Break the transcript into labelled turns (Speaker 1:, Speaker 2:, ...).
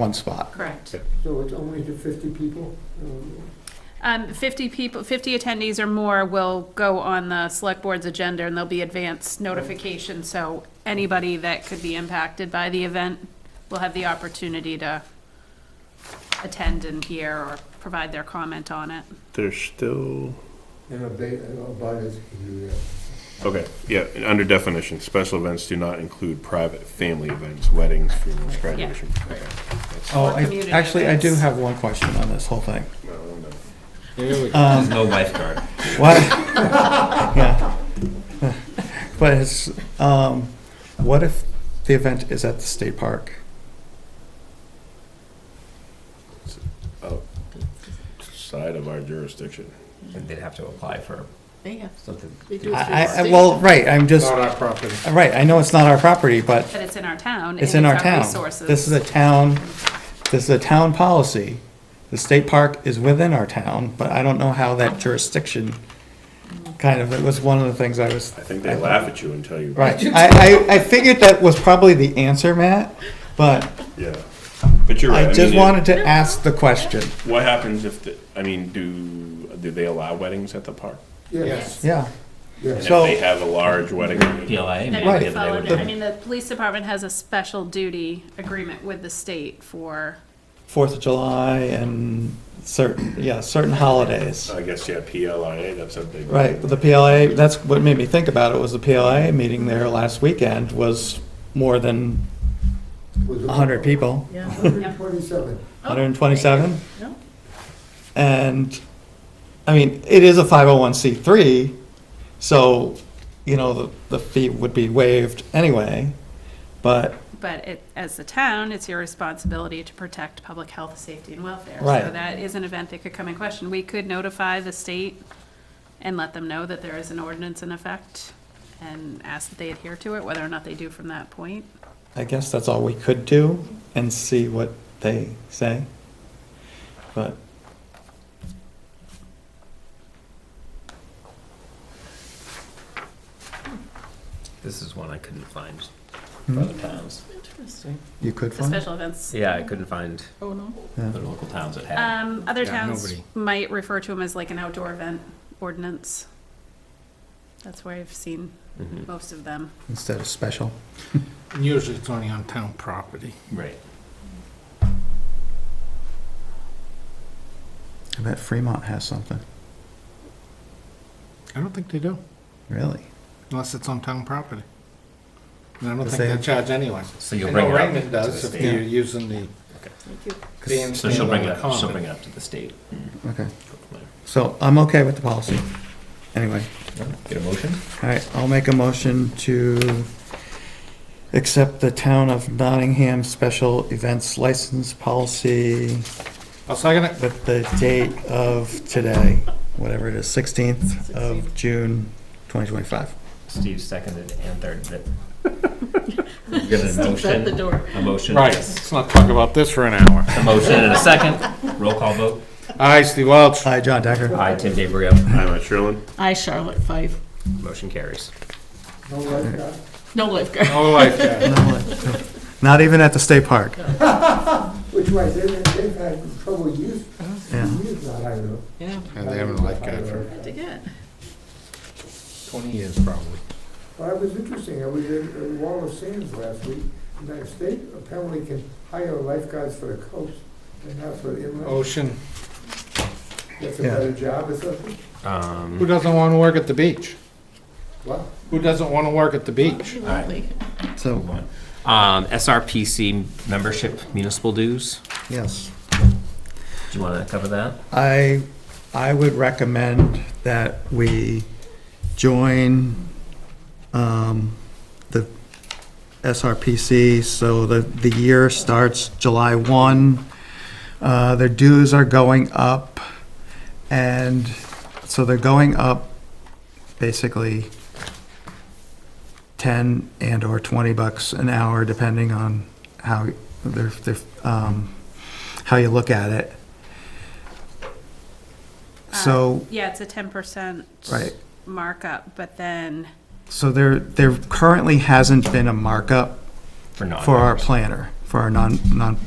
Speaker 1: one spot.
Speaker 2: Correct.
Speaker 3: So it's only to 50 people? Um,
Speaker 2: Um, 50 people, 50 attendees or more will go on the select board's agenda, and there'll be advance notification, so anybody that could be impacted by the event will have the opportunity to attend and hear or provide their comment on it.
Speaker 4: There's still,
Speaker 3: And abate- and abutters can do that.
Speaker 4: okay, yeah, and under definition, special events do not include private family events, weddings, funerals, graduation. Okay.
Speaker 1: Oh, I,
Speaker 2: community
Speaker 1: actually, I do
Speaker 2: events.
Speaker 1: have one question on this whole thing.
Speaker 4: No, I'm done.
Speaker 5: There's no lifeguard.
Speaker 1: What? yeah. But it's, um, what if the event is at the state park?
Speaker 4: Side of our jurisdiction.
Speaker 5: And they'd have to apply for
Speaker 6: They have,
Speaker 5: something.
Speaker 6: They do
Speaker 1: I, I, well, right, I'm just,
Speaker 3: Not our property.
Speaker 1: right, I know it's not our property, but
Speaker 2: But it's in our town. and
Speaker 1: it's in our town.
Speaker 2: Resources.
Speaker 1: This is a town, this is a town policy. The state park is within our town, but I don't know how that jurisdiction, kind of, it was one of the things I was
Speaker 4: I think they laugh at you and tell you.
Speaker 1: Right. I, I, I figured that was probably the answer, Matt, but
Speaker 4: Yeah, but you're right.
Speaker 1: I just
Speaker 4: mean, it-
Speaker 1: wanted to ask the question.
Speaker 4: What happens if, the I mean, do, do they allow weddings at the park?
Speaker 3: Yes,
Speaker 1: Yeah.
Speaker 4: And
Speaker 3: yes.
Speaker 4: if
Speaker 1: So-
Speaker 4: they have a large wedding,
Speaker 5: PLA.
Speaker 2: That
Speaker 5: maybe
Speaker 2: would
Speaker 5: they
Speaker 1: Right.
Speaker 2: fall
Speaker 5: would-
Speaker 2: under- I mean, the police department has a special duty agreement with the state for,
Speaker 1: Fourth of July and certain, yeah, certain holidays.
Speaker 4: I guess, yeah, PLIA, that's a big.
Speaker 1: Right, the PLA, that's what made me think about it, was the PLA meeting there last weekend was more than
Speaker 3: Was it-
Speaker 1: hundred people,
Speaker 6: yeah.
Speaker 3: 127.
Speaker 6: Oh,
Speaker 1: hundred and twenty-seven.
Speaker 6: No.
Speaker 1: And, I mean, it is a five oh one C three, so, you know, the, the fee would be waived anyway. But
Speaker 2: but it, as the town, it's your responsibility to protect public health, safety, and welfare. So
Speaker 1: Right.
Speaker 2: that is an event that could come in question. We could notify the state and let them know that there is an ordinance in effect and ask that they adhere to it, whether or not they do from that point.
Speaker 1: I guess that's all we could do and see what they say. But
Speaker 5: This is one I couldn't find for other towns.
Speaker 6: Interesting.
Speaker 1: hmm? you could
Speaker 2: The
Speaker 1: find it.
Speaker 2: special events.
Speaker 5: Yeah, I couldn't find
Speaker 6: Oh, no.
Speaker 5: the local towns that
Speaker 6: Uh,
Speaker 5: had.
Speaker 2: Um, other towns might refer to them as like an outdoor event ordinance. That's where I've seen
Speaker 5: Mhm.
Speaker 2: most of them.
Speaker 1: instead of special.
Speaker 7: Usually it's only on town property.
Speaker 5: Right.
Speaker 1: I bet Fremont has something,
Speaker 7: I don't think they do,
Speaker 1: really.
Speaker 7: unless it's on town property. And I don't
Speaker 1: Does
Speaker 7: think
Speaker 1: they-
Speaker 7: they charge anyone.
Speaker 5: So you'll
Speaker 7: I
Speaker 5: bring it
Speaker 7: know
Speaker 5: up
Speaker 7: Raymond
Speaker 5: to the
Speaker 7: does if
Speaker 5: state.
Speaker 7: you're using the
Speaker 6: Thank you.
Speaker 7: bandstand
Speaker 5: So she'll bring
Speaker 7: on
Speaker 5: it
Speaker 7: the
Speaker 5: up, she'll
Speaker 7: common.
Speaker 5: bring it up to the state.
Speaker 1: Okay, so I'm okay with the policy. Anyway,
Speaker 5: Get a motion?
Speaker 1: all right, I'll make a motion to accept the town of Nottingham special events license policy
Speaker 7: I'll second it.
Speaker 1: with the date of today, whatever it is, 16th of June 2025.
Speaker 5: Steve seconded and thirded it. We're gonna
Speaker 6: Steve's at the
Speaker 5: motion,
Speaker 6: door.
Speaker 5: a motion.
Speaker 7: Right, let's not talk about this for an hour.
Speaker 5: A motion and a second. Roll call vote.
Speaker 7: Aye, Steve Welch.
Speaker 1: Hi, John Decker.
Speaker 5: Aye, Tim DeBrio.
Speaker 4: I'm a Sherlin.
Speaker 6: I, Charlotte Fife,
Speaker 5: Motion carries.
Speaker 3: No lifeguard.
Speaker 6: no lifeguard.
Speaker 7: No lifeguard.
Speaker 1: Not even at the state park.
Speaker 3: Which way, they- they've had trouble use,
Speaker 1: Yeah.
Speaker 3: use that, I know.
Speaker 6: Yeah,
Speaker 7: And they haven't lifeguard for
Speaker 6: I dig it.
Speaker 7: twenty years probably.
Speaker 3: But it was interesting, I was in in Wallace Sands last week, and the state apparently can hire lifeguards for the coast, and not for the inland.
Speaker 7: Ocean,
Speaker 3: That's a
Speaker 1: Oh, Yeah.
Speaker 3: better job or something?
Speaker 7: who doesn't want to work at the beach?
Speaker 3: What?
Speaker 7: Who doesn't want to work at the beach?
Speaker 6: Absolutely.
Speaker 1: So,
Speaker 5: Um, SRPC membership municipal dues.
Speaker 1: yes,
Speaker 5: Do you want to cover that?
Speaker 1: I, I would recommend that we join um, the SRPC, so the, the year starts July 1. Uh, Their dues are going up, and so they're going up basically 10 and/or 20 bucks an hour, depending on how, they're they're, um, how you look at it. So,
Speaker 2: Yeah, it's a ten percent
Speaker 1: Right.
Speaker 2: markup, but then
Speaker 1: so there, there currently hasn't been a markup
Speaker 5: For non.
Speaker 1: for our planner, for our non, non,